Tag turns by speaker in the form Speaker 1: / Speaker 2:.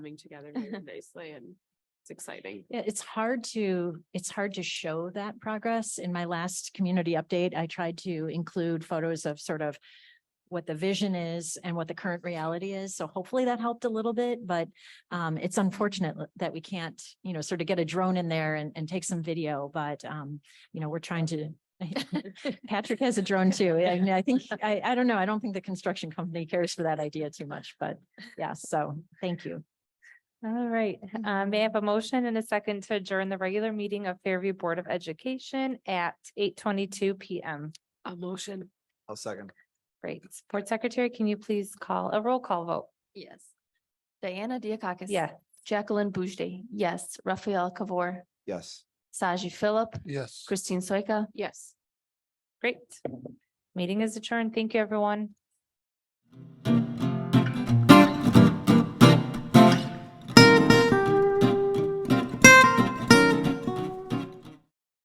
Speaker 1: coming together very nicely and it's exciting.
Speaker 2: Yeah, it's hard to, it's hard to show that progress. In my last community update, I tried to include photos of sort of what the vision is and what the current reality is. So hopefully that helped a little bit, but um, it's unfortunate l- that we can't, you know, sort of get a drone in there and, and take some video, but um, you know, we're trying to Patrick has a drone too. I mean, I think, I, I don't know. I don't think the construction company cares for that idea too much, but yeah, so thank you.
Speaker 3: All right, um, may I have a motion and a second to adjourn the regular meeting of Fairview Board of Education at eight twenty-two PM?
Speaker 1: A motion.
Speaker 4: I'll second.
Speaker 3: Great. Board Secretary, can you please call a roll call vote?
Speaker 5: Yes. Diana Diakakis.
Speaker 3: Yes.
Speaker 5: Jacqueline Boujde, yes. Raphael Kabor,
Speaker 4: Yes.
Speaker 5: Saji Philip,
Speaker 4: Yes.
Speaker 5: Christine Soika.
Speaker 1: Yes.
Speaker 3: Great. Meeting is adjourned. Thank you, everyone.